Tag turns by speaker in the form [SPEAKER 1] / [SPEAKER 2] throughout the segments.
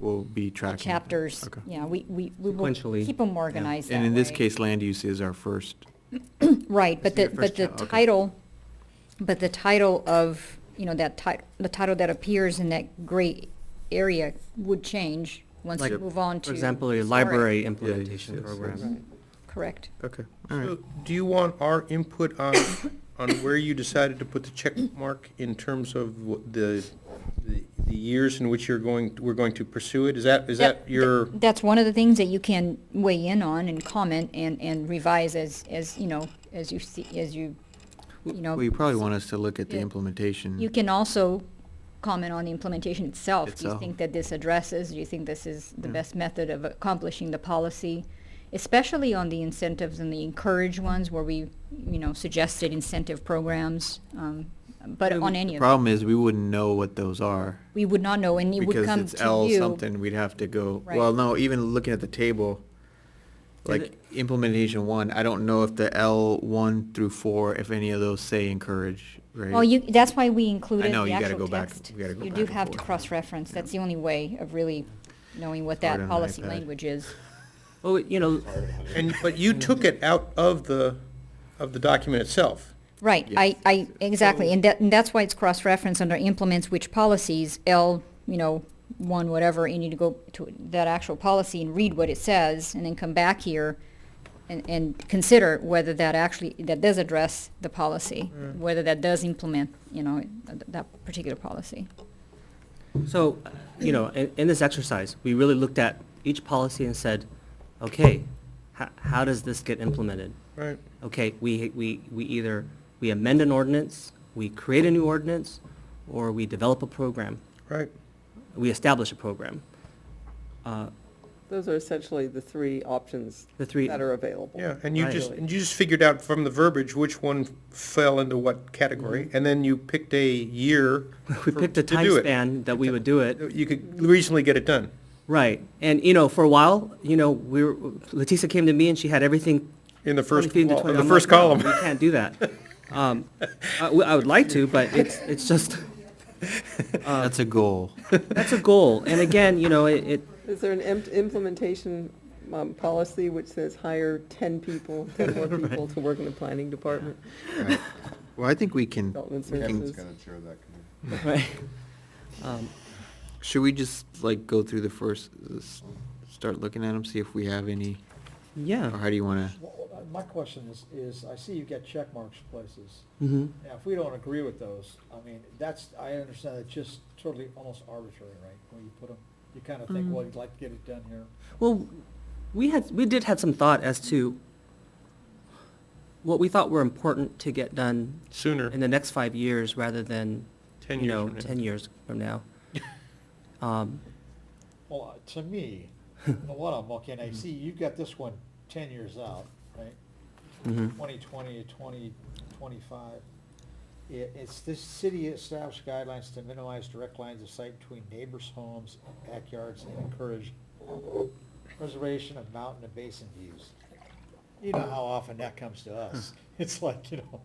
[SPEAKER 1] will be tracking. that.
[SPEAKER 2] chapters,
[SPEAKER 1] Okay.
[SPEAKER 2] yeah, we, we, we will
[SPEAKER 3] Sequentially,
[SPEAKER 2] keep them
[SPEAKER 3] yeah.
[SPEAKER 2] organized that
[SPEAKER 1] And in this
[SPEAKER 2] way.
[SPEAKER 1] case, land use is our first,
[SPEAKER 2] Right, but
[SPEAKER 1] This
[SPEAKER 2] the,
[SPEAKER 1] is your
[SPEAKER 2] but
[SPEAKER 1] first
[SPEAKER 2] the
[SPEAKER 1] ti- okay.
[SPEAKER 2] title, but the title of, you know, that ti- the title that appears in that gray area would change once
[SPEAKER 3] Like,
[SPEAKER 2] you move on to.
[SPEAKER 3] For example, a
[SPEAKER 2] historic.
[SPEAKER 3] library implementation
[SPEAKER 1] yes, yes,
[SPEAKER 3] program.
[SPEAKER 1] yes.
[SPEAKER 2] Correct.
[SPEAKER 1] okay, all
[SPEAKER 4] So
[SPEAKER 1] right.
[SPEAKER 4] Do you want our input on, on where you decided to put the check mark in terms of what the, the the years in which you're going, we're going to pursue it? Is that, is that
[SPEAKER 2] Yep.
[SPEAKER 4] your,
[SPEAKER 2] That's one of the things that you can weigh in on and comment and, and revise as, as, you know, as you see, as you, you know.
[SPEAKER 1] Well, you probably want us to look at the
[SPEAKER 2] Yeah.
[SPEAKER 1] implementation.
[SPEAKER 2] You can also comment on the implementation itself. Do you
[SPEAKER 1] Itself.
[SPEAKER 2] think that this addresses, do you think this is the
[SPEAKER 1] Yeah.
[SPEAKER 2] best method of accomplishing the policy? Especially on the incentives and the encourage ones where we, you know, suggested incentive programs, um, but
[SPEAKER 1] Yeah,
[SPEAKER 2] on
[SPEAKER 1] the-
[SPEAKER 2] any
[SPEAKER 1] The
[SPEAKER 2] of,
[SPEAKER 1] problem is, we wouldn't know what those are.
[SPEAKER 2] we would not know and it would
[SPEAKER 1] Because
[SPEAKER 2] come
[SPEAKER 1] it's
[SPEAKER 2] to
[SPEAKER 1] L
[SPEAKER 2] you.
[SPEAKER 1] something, we'd have to go,
[SPEAKER 2] Right.
[SPEAKER 1] well, no, even looking at the table, like implementation one, I don't know if the L one through four, if any of those say encourage, right?
[SPEAKER 2] Well, you, that's why we included
[SPEAKER 1] know,
[SPEAKER 2] the
[SPEAKER 1] you gotta
[SPEAKER 2] actual
[SPEAKER 1] go back-
[SPEAKER 2] text.
[SPEAKER 1] we gotta go
[SPEAKER 2] You
[SPEAKER 1] back
[SPEAKER 2] do
[SPEAKER 1] and
[SPEAKER 2] have to
[SPEAKER 1] forth.
[SPEAKER 2] cross-reference, that's the only way of really knowing what
[SPEAKER 1] It's hard on
[SPEAKER 2] that
[SPEAKER 1] an
[SPEAKER 2] policy
[SPEAKER 1] iPad.
[SPEAKER 2] language is.
[SPEAKER 3] Oh, you know,
[SPEAKER 4] and, but you took it out of the, of the document itself?
[SPEAKER 2] Right, I, I, exactly, and that, and that's why it's cross-referenced under implements which policies, L, you know, one, whatever, and you need to go to that actual policy and read what it says, and then come back here and, and consider whether that actually, that does address the policy, whether that does implement, you know, th- that particular policy.
[SPEAKER 3] so, uh, you know, in, in this exercise, we really looked at each policy and said, okay, how, how does this get implemented?
[SPEAKER 4] Right.
[SPEAKER 3] Okay, we, we, we either, we amend an ordinance, we create a new ordinance, or we develop a program,
[SPEAKER 4] Right.
[SPEAKER 3] we establish a program. Uh,
[SPEAKER 5] Those are essentially the three options
[SPEAKER 3] The three-
[SPEAKER 5] that are available.
[SPEAKER 4] Yeah, and you
[SPEAKER 3] Right.
[SPEAKER 4] just, and you just figured out from the verbiage which one fell into what category, and then you picked a year.
[SPEAKER 3] Mm-hmm. We
[SPEAKER 4] for-
[SPEAKER 3] picked a
[SPEAKER 4] to
[SPEAKER 3] time
[SPEAKER 4] do it.
[SPEAKER 3] span that we would do it.
[SPEAKER 4] You could reasonably get it done.
[SPEAKER 3] Right, and you know, for a while, you know, we were, Letitia came to me and she had everything.
[SPEAKER 4] In the first
[SPEAKER 3] 20 feet into
[SPEAKER 4] wall-
[SPEAKER 3] 20.
[SPEAKER 4] the
[SPEAKER 3] I'm
[SPEAKER 4] first
[SPEAKER 3] like, no,
[SPEAKER 4] column.
[SPEAKER 3] We can't do that. Um, I, w- I would like to, but it's, it's just,
[SPEAKER 1] That's a goal.
[SPEAKER 3] that's a goal. And again, you know, it, it,
[SPEAKER 5] Is there an im- implementation um, policy which says hire 10 people, 10 more people to work in the planning department,
[SPEAKER 1] Right. Well, I think we can,
[SPEAKER 5] development
[SPEAKER 6] Kevin's
[SPEAKER 5] services?
[SPEAKER 6] gonna chair that committee.
[SPEAKER 3] right? Um,
[SPEAKER 1] should we just like go through the first, s- start looking at them, see if we have any, or
[SPEAKER 3] Yeah.
[SPEAKER 1] how do you wanna?
[SPEAKER 7] Well, uh, My question is, is I see you've got check marks places.
[SPEAKER 3] Mm-hmm.
[SPEAKER 7] Now, if we don't agree with those, I mean, that's, I understand it's just totally almost arbitrary, right? When you put them, you kind of think, well, you'd like to get it done here.
[SPEAKER 3] Well, we had, we did had some thought as to what we thought were important to get done
[SPEAKER 4] Sooner.
[SPEAKER 3] in the next five years rather than,
[SPEAKER 4] 10
[SPEAKER 3] you
[SPEAKER 4] years
[SPEAKER 3] know,
[SPEAKER 4] from now.
[SPEAKER 3] ten years from now. Um,
[SPEAKER 7] Well, uh, to me, you know what I'm looking, I see you've got this one ten years out, right?
[SPEAKER 3] mhm.
[SPEAKER 4] Mm-hmm.
[SPEAKER 7] Twenty twenty to twenty twenty-five. It, it's this city established guidelines to minimize direct lines of sight between neighbors' homes, backyards, and encourage preservation of mountain and basin views. You know how often that comes to us. It's like, you know.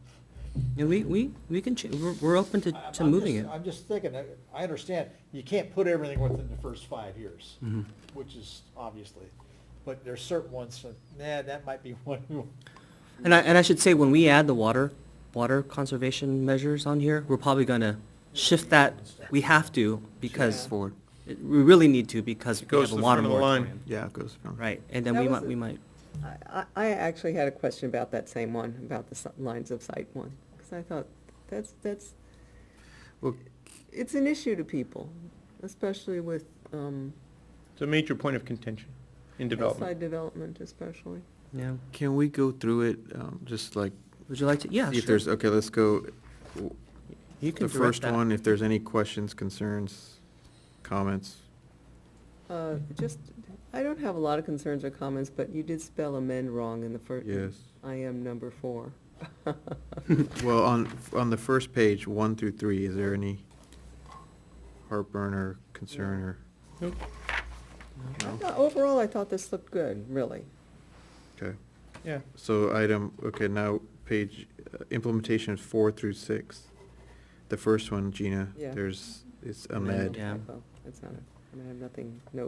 [SPEAKER 3] And we, we, we can, ch- we're, we're open to,
[SPEAKER 7] I- I'm
[SPEAKER 3] to moving it.
[SPEAKER 7] just- I'm just thinking, I- I understand, you can't put everything within the first five years,
[SPEAKER 3] Mhm.
[SPEAKER 7] which is obviously, but there's certain ones that, nah, that might be one. who-
[SPEAKER 3] And I, and I should say, when we add the water, water conservation measures on here, we're probably gonna shift that, we have to, because
[SPEAKER 1] Forward,
[SPEAKER 3] it- we really need to, because
[SPEAKER 4] It
[SPEAKER 3] we have
[SPEAKER 4] goes to
[SPEAKER 3] a
[SPEAKER 4] the
[SPEAKER 3] water
[SPEAKER 4] front of the line.
[SPEAKER 3] moratorium.
[SPEAKER 1] yeah, it goes from.
[SPEAKER 3] Right, and then
[SPEAKER 5] That
[SPEAKER 3] we
[SPEAKER 5] was
[SPEAKER 3] might, we
[SPEAKER 5] a-
[SPEAKER 3] might,
[SPEAKER 5] I, I- I actually had a question about that same one, about the si- lines of sight one, because I thought, that's, that's,
[SPEAKER 1] Well-
[SPEAKER 5] it's an issue to people, especially with um,
[SPEAKER 4] It's a major point of contention in development.
[SPEAKER 5] outside development especially.
[SPEAKER 3] yeah.
[SPEAKER 1] Can we go through it, um, just like,
[SPEAKER 3] Would you like to, yeah,
[SPEAKER 1] see if
[SPEAKER 3] sure.
[SPEAKER 1] there's, okay, let's go, w-
[SPEAKER 3] You can
[SPEAKER 1] the
[SPEAKER 3] direct
[SPEAKER 1] first
[SPEAKER 3] that.
[SPEAKER 1] one, if there's any questions, concerns, comments.
[SPEAKER 5] Uh, Just, I don't have a lot of concerns or comments, but you did spell amend wrong in the first.
[SPEAKER 1] Yes.
[SPEAKER 5] I am number four.
[SPEAKER 1] Well, on, on the first page, one through three, is there any heartburn or concern or?
[SPEAKER 4] Nope.
[SPEAKER 5] I
[SPEAKER 1] No?
[SPEAKER 5] thought- Overall, I thought this looked good, really.
[SPEAKER 1] Okay,
[SPEAKER 4] Yeah.
[SPEAKER 1] so item, okay, now page, uh, implementation four through six. The first one, Gina,
[SPEAKER 5] Yeah.
[SPEAKER 1] there's, it's
[SPEAKER 5] I oh, don't know
[SPEAKER 1] Ahmed.
[SPEAKER 5] if
[SPEAKER 3] Yeah.
[SPEAKER 5] I- well, It's not, a- I mean, I have nothing, no